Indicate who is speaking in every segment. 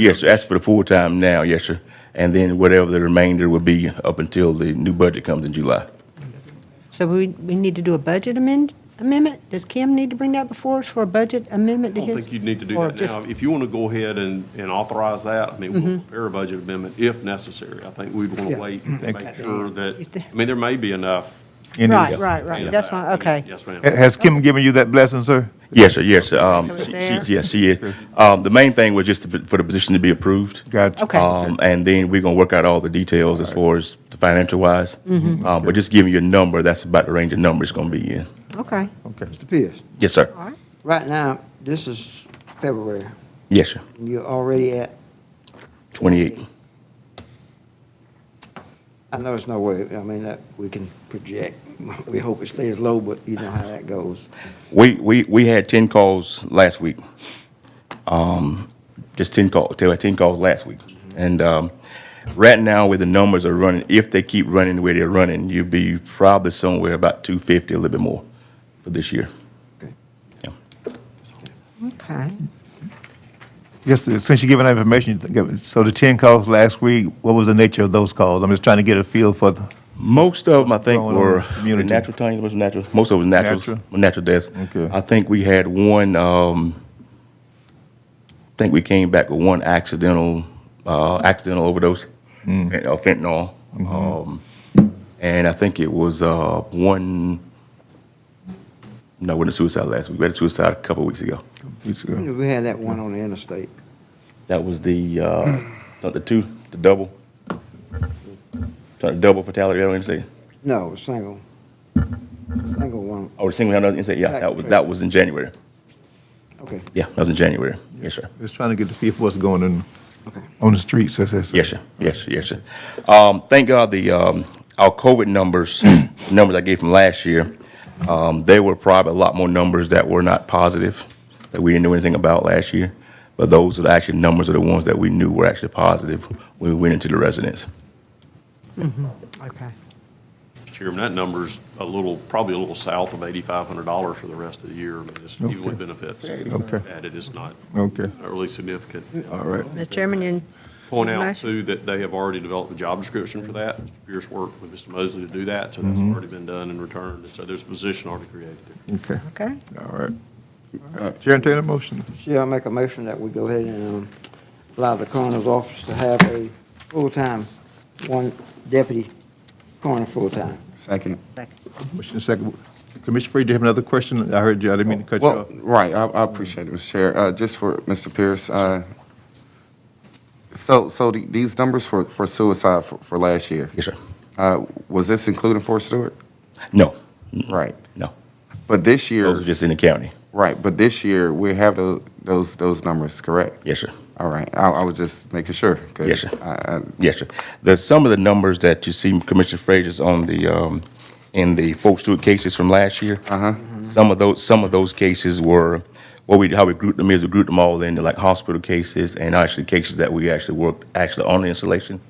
Speaker 1: Yes, sir, that's for the full-time now, yes, sir. And then whatever the remainder would be up until the new budget comes in July.
Speaker 2: So we, we need to do a budget amend, amendment? Does Kim need to bring that before us for a budget amendment to
Speaker 3: I
Speaker 2: his?
Speaker 3: don't think you'd need to do
Speaker 2: or
Speaker 3: that
Speaker 2: just- Mm-hmm.
Speaker 3: now. If you want to go ahead and, and authorize that, I mean, we'll prepare a budget amendment if necessary. I think we'd want to wait and make sure that, I mean, there may be enough.
Speaker 4: Any-
Speaker 2: Right, right, right,
Speaker 3: in
Speaker 2: that's
Speaker 3: that.
Speaker 2: why, okay.
Speaker 3: Yes, ma'am.
Speaker 4: Ha- Has Kim given you that blessing, sir?
Speaker 1: Yes, sir, yes, sir. Um,
Speaker 2: So it's
Speaker 1: she-
Speaker 2: there?
Speaker 1: she- Yes, she is. Um, The main thing was just to- for the position to be approved.
Speaker 4: Gotcha.
Speaker 2: Okay.
Speaker 1: Um, And then we're going to work out all the details as far as the financial-wise. Um, But just giving you a number, that's about the range of numbers it's going to be in.
Speaker 2: Okay,
Speaker 4: Okay.
Speaker 5: Mr. Pierce,
Speaker 1: Yes, sir.
Speaker 2: all right.
Speaker 5: right now, this is February,
Speaker 1: Yes, sir.
Speaker 5: and you're already at,
Speaker 1: 28.
Speaker 5: I know there's no way, I mean, that we can project. We hope it stays low, but you know how that goes.
Speaker 1: We, we, we had 10 calls last week. Um, Just 10 calls, 10 calls last week. And um, right now, where the numbers are running, if they keep running the way they're running, you'll be probably somewhere about 250, a little bit more for this year.
Speaker 5: Okay.
Speaker 1: Yeah.
Speaker 2: Okay.
Speaker 4: Yes, sir. since you're giving that information, you think- so the 10 calls last week, what was the nature of those calls? I'm just trying to get a feel for the,
Speaker 1: Most of them, I think,
Speaker 4: going on in
Speaker 1: were
Speaker 4: the community?
Speaker 1: natural things. Was natural. Most of it was naturals, natural,
Speaker 4: Natural?
Speaker 1: deaths.
Speaker 4: Okay.
Speaker 1: I think we had one. Um, I think we came back with one accidental, uh, accidental overdose, fent- uh, fentanyl, um, and I think it was uh, one. No, it wasn't suicide last week. We had a suicide a couple weeks ago.
Speaker 4: uh,
Speaker 5: We had that one on the interstate.
Speaker 1: That was the uh, the two, the double, the double fatality. I don't even say.
Speaker 5: No, it was single. Single one,
Speaker 1: Oh, the single out and say, yeah, that was that was in January.
Speaker 5: okay,
Speaker 1: Yeah, that was in January. Yes, sir.
Speaker 4: just trying to get the feel for what's going on,
Speaker 5: okay.
Speaker 4: on the streets, that's, that's.
Speaker 1: Yes, sir. Yes, sir. Yes, sir. Um, thank God the um, our COVID numbers, numbers I gave from last year, um, they were probably a lot more numbers that were not positive that we didn't know anything about last year. But those are the actual numbers are the ones that we knew were actually positive when we went into the residence.
Speaker 2: Okay.
Speaker 3: Mr. Chairman, that number's a little, probably a little south of eighty-five hundred dollars for the rest of the year. I mean, it's even with benefits.
Speaker 4: Okay.
Speaker 3: Added, it's not,
Speaker 4: Okay,
Speaker 3: not really significant.
Speaker 4: all right.
Speaker 2: The chairman, you
Speaker 3: Point out
Speaker 2: Motion.
Speaker 3: too, that they have already developed a job description for that. Mr. Pierce worked with Mr. Mosley to do that, so that's
Speaker 4: Mm-hmm.
Speaker 3: already been done and returned. And so there's a position already created there.
Speaker 4: Okay,
Speaker 2: okay?
Speaker 4: all right. Chair, entertain a motion.
Speaker 5: Chair, I make a motion that we go ahead and um, allow the coroner's office to have a full-time, one deputy coroner full-time.
Speaker 6: Second.
Speaker 4: Commissioner second. Commissioner Freed, do you have another question? I heard you, I didn't mean to cut you
Speaker 6: Well,
Speaker 4: off.
Speaker 6: right, I, I appreciate it, Mr. Chair. Uh, just for Mr. Pierce, uh, so, so the- these numbers for, for suicide for, for last year?
Speaker 1: Yes, sir.
Speaker 6: Uh, was this including Fort Stewart?
Speaker 1: No,
Speaker 6: Right.
Speaker 1: no.
Speaker 6: But this
Speaker 1: Mm-hmm. Those are
Speaker 6: year,
Speaker 1: just in the county.
Speaker 6: right, but this year, we have tho- those, those numbers, correct?
Speaker 1: Yes, sir.
Speaker 6: All right, I, I was just making sure. 'cause
Speaker 1: Yes, sir.
Speaker 6: I, I,
Speaker 1: Yes, sir. The, some of the numbers that you see Commissioner Frazier's on the, um, in the folks Stewart cases from last year. Uh-huh. Some of those, some of those cases were, what we, how we grouped them is we grouped them all into like hospital cases and actually cases that we actually worked, actually on the installation.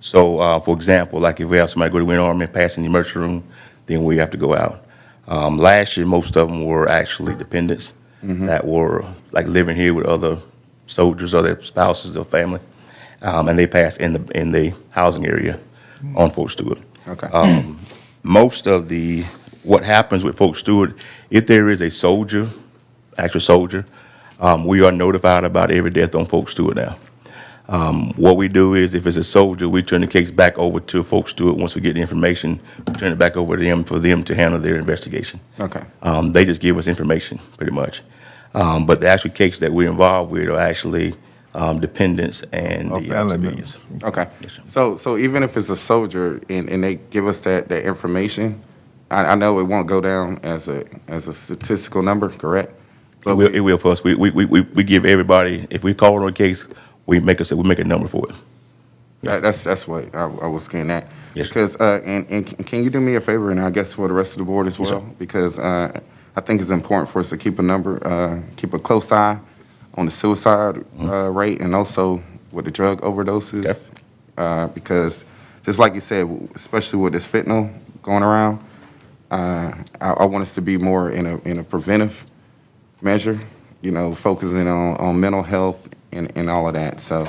Speaker 1: So, uh, for example, like if we have somebody go to Win Army and pass in the emergency room, then we have to go out. Um, last year, most of them were actually dependents that were like living here with other soldiers or their spouses or family um, and they passed in the in the housing area on Fort Stewart.
Speaker 6: okay.
Speaker 1: Most of the what happens with Fort Stewart, if there is a soldier, actual soldier, um, we are notified about every death on Fort Stewart now. Um, what we do is, if it's a soldier, we turn the case back over to Fort Stewart. Once we get the information, we turn it back over to them for them to handle their investigation.
Speaker 6: Okay.
Speaker 1: Um, they just give us information, pretty much. Um, but the actual cases that we're involved with are actually um, dependents and
Speaker 4: Or
Speaker 1: the uh,
Speaker 4: family members.
Speaker 1: civilians.
Speaker 6: Okay. So, so even if it's a soldier and, and they give us that, that information, I, I know it won't go down as a, as a statistical number, correct?
Speaker 1: It will, it will for us. We, we, we, we we give everybody, if we call on a case, we make a, we make a number for it.
Speaker 6: That, that's, that's what I, I was getting at.
Speaker 1: Yes, sir.
Speaker 6: Because, uh, and, and can- can you do me a favor, and I guess for the rest of the board as well? Because, uh, I think it's important for us to keep a number, uh, keep a close eye on the suicide,
Speaker 1: Mm-hmm.
Speaker 6: uh, rate and also with the drug
Speaker 1: Okay.
Speaker 6: overdoses. Uh, because, just like you said, especially with this fentanyl going around, uh, I, I want us to be more in a, in a preventive measure, you know, focusing on, on mental health and, and all of that, so.